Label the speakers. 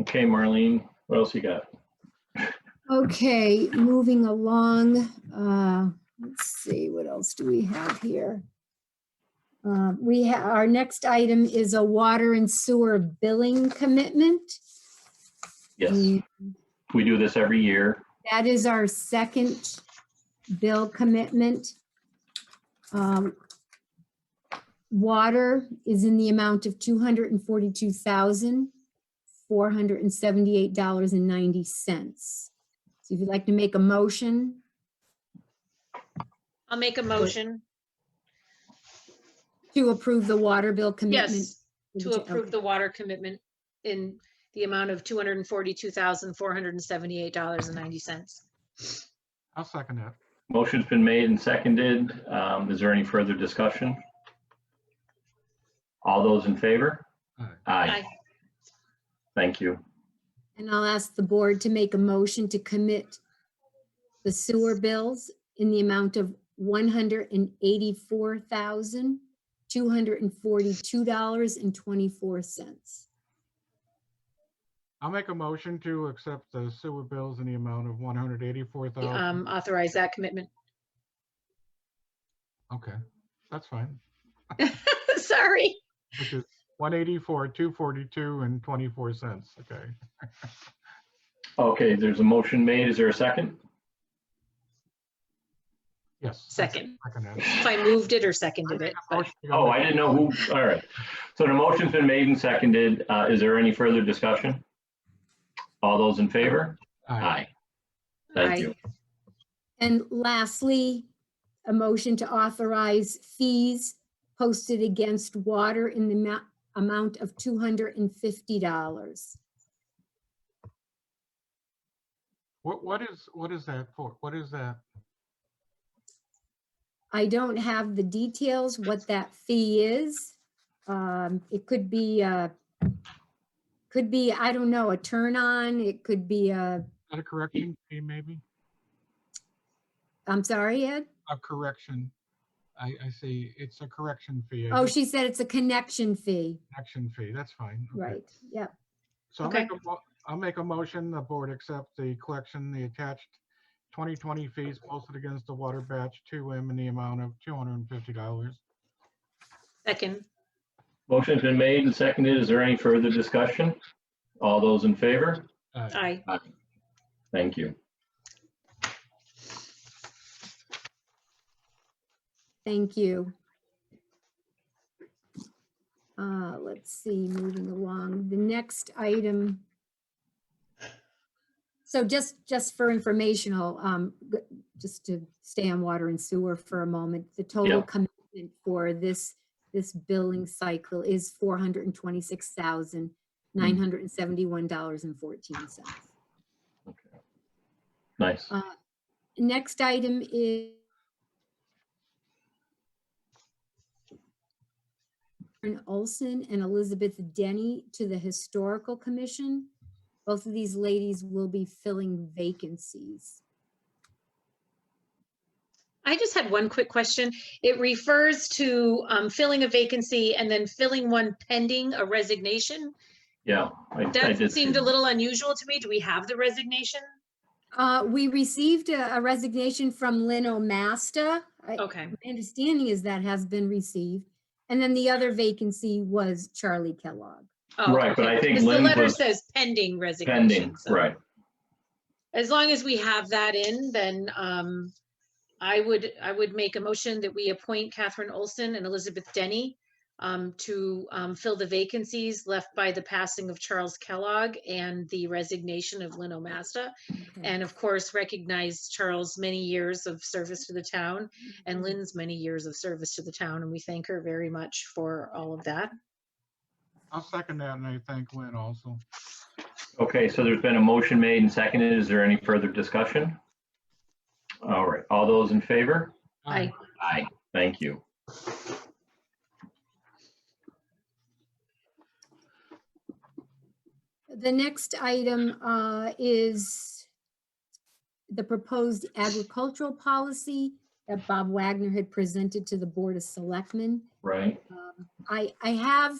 Speaker 1: Okay, Marlene, what else you got?
Speaker 2: Okay, moving along, uh, let's see, what else do we have here? Uh, We, ha- our next item is a water and sewer billing commitment.
Speaker 1: Yes,
Speaker 2: And
Speaker 1: we do this every year.
Speaker 2: That is our second bill commitment. Um, Water is in the amount of $242,478.90. So if you'd like to make a motion?
Speaker 3: I'll make a motion.
Speaker 2: To approve the water bill commitment?
Speaker 3: Yes, to approve the water commitment in the amount of two hundred and forty-two thousand, four hundred and seventy-eight dollars and ninety cents.
Speaker 4: I'll second that.
Speaker 1: Motion's been made and seconded. Um, Is there any further discussion? All those in favor?
Speaker 4: Aye.
Speaker 1: Aye. Thank you.
Speaker 2: And I'll ask the board to make a motion to commit the sewer bills in the amount of one hundred and eighty-four thousand, two hundred and forty-two dollars and twenty-four cents.
Speaker 4: I'll make a motion to accept the sewer bills in the amount of one hundred eighty-four thousand.
Speaker 3: Um, authorize that commitment.
Speaker 4: Okay, that's fine.
Speaker 3: Sorry.
Speaker 4: Which is one eighty-four, two forty-two and twenty-four cents. Okay.
Speaker 1: Okay, there's a motion made. Is there a second?
Speaker 4: Yes. I
Speaker 3: Second.
Speaker 4: Second that.
Speaker 3: If I moved it or seconded it. but-
Speaker 1: Oh, I
Speaker 4: Motion
Speaker 1: didn't know who, all right. So the motion's been made and seconded. Uh, Is there any further discussion? All those in favor?
Speaker 4: Aye.
Speaker 1: Aye. Thank you.
Speaker 2: And lastly, a motion to authorize fees posted against water in the ma- amount of two hundred and fifty dollars.
Speaker 4: What, what is, what is that for? What is that?
Speaker 2: I don't have the details what that fee is. Um, It could be, uh, could be, I don't know, a turn on, it could be a,
Speaker 4: Is that a correction fee maybe?
Speaker 2: I'm sorry, Ed?
Speaker 4: A correction. I, I see. It's a correction fee. a
Speaker 2: Oh, she said it's a connection fee,
Speaker 4: Correction fee. That's fine. Okay.
Speaker 2: right, yep.
Speaker 4: So I'll
Speaker 3: Okay.
Speaker 4: make a, mo- I'll make a motion, the board accept the collection, the attached 2020 fees posted against the water batch 2M in the amount of $250.
Speaker 3: Second.
Speaker 1: Motion's been made and seconded. Is there any further discussion? All those in favor?
Speaker 4: Uh,
Speaker 3: Aye.
Speaker 1: Thank you.
Speaker 2: Thank you. Uh, Let's see, moving along, the next item. So just, just for informational, um, g- just to stay on water and sewer for a moment, the total
Speaker 1: Yeah.
Speaker 2: commitment for this, this billing cycle is $426,971.14.
Speaker 1: Nice.
Speaker 3: Um,
Speaker 2: Uh, Next item is Karen Olson and Elizabeth Denny to the Historical Commission. Both of these ladies will be filling vacancies.
Speaker 3: I just had one quick question. It refers to, um, filling a vacancy and then filling one pending a resignation.
Speaker 1: Yeah. I- I
Speaker 3: That
Speaker 1: did see
Speaker 3: seemed a
Speaker 1: that.
Speaker 3: little unusual to me. Do we have the resignation?
Speaker 2: Uh, We received a a resignation from Lynn Omasta. I-
Speaker 3: Okay,
Speaker 2: My understanding is that has been received. And then the other vacancy was Charlie Kellogg.
Speaker 3: Oh,
Speaker 1: Right, but
Speaker 3: okay.
Speaker 1: I think
Speaker 3: Because
Speaker 1: Lynn
Speaker 3: The letter
Speaker 1: was
Speaker 3: says pending resignation.
Speaker 1: Pending,
Speaker 3: so
Speaker 1: right.
Speaker 3: As long as we have that in, then um, I would, I would make a motion that we appoint Catherine Olson and Elizabeth Denny um, to um, fill the vacancies left by the passing of Charles Kellogg and the resignation of Lynn Omasta. And of course, recognize Charles' many years of service to the town and Lynn's many years of service to the town. And we thank her very much for all of that.
Speaker 4: I'll second that and I thank Lynn also.
Speaker 1: Okay, so there's been a motion made and seconded. Is there any further discussion? All right, all those in favor?
Speaker 3: Aye.
Speaker 1: Aye. Thank you.
Speaker 2: The next item uh, is the proposed agricultural policy that Bob Wagner had presented to the Board of Selectmen.
Speaker 1: Right,
Speaker 2: I, I have